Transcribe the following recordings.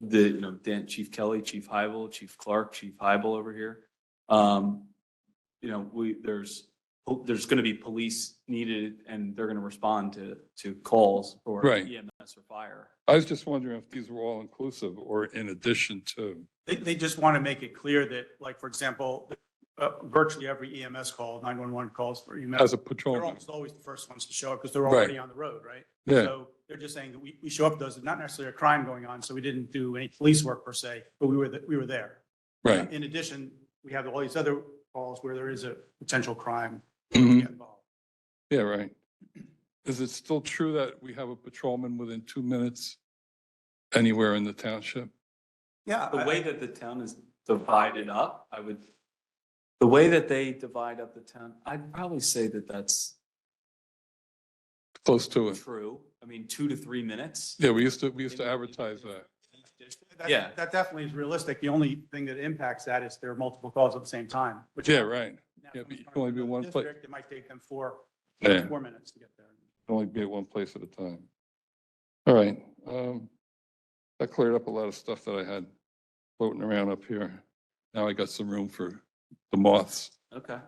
the, you know, Dan, Chief Kelly, Chief Hybel, Chief Clark, Chief Hybel over here. Um, you know, we, there's, there's going to be police needed and they're going to respond to, to calls or Right. EMS or fire. I was just wondering if these were all inclusive or in addition to. They, they just want to make it clear that, like, for example, uh, virtually every EMS call, 911 calls for As EMS, a they're patrolman, almost always the first ones to show up because they're already on the road, right? yeah, So they're just saying that we, we show up, those, not necessarily a crime going on, so we didn't do any police work per se, but we were, the- we were there. right. In addition, we have all these other calls where there is a potential crime Mhm. involved. Yeah, right. Is it still true that we have a patrolman within two minutes anywhere in the township? Yeah. The I- way that the town is divided up, I would, the way that they divide up the town, I'd probably say that that's Close to it. true. I mean, two to three minutes. Yeah, we used to, we used to advertise that. that- Yeah. That definitely is realistic. The only thing that impacts that is there are multiple calls at the same time, which. Yeah, right. Yeah, Now, but you can only be one place. district, It might take them four, Yeah. four minutes to get there. Only be at one place at a time. All right. um, That cleared up a lot of stuff that I had floating around up here. Now I got some room for the moths. Okay,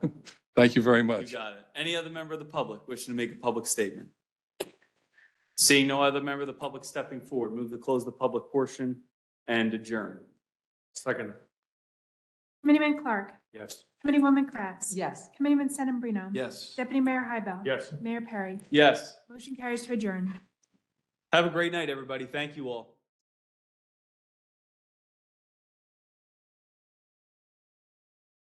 Thank you very you much. got it. Any other member of the public wishing to make a public statement? Seeing no other member of the public stepping forward, move to close the public portion and adjourn. Second. Committeeman Clark. Yes. Committeewoman Kratz. Yes. Committeeman Sedambrino. Yes. Deputy Mayor Hybel. Yes. Mayor Perry. Yes. Motion carries to adjourn. Have a great night, everybody. Thank you all.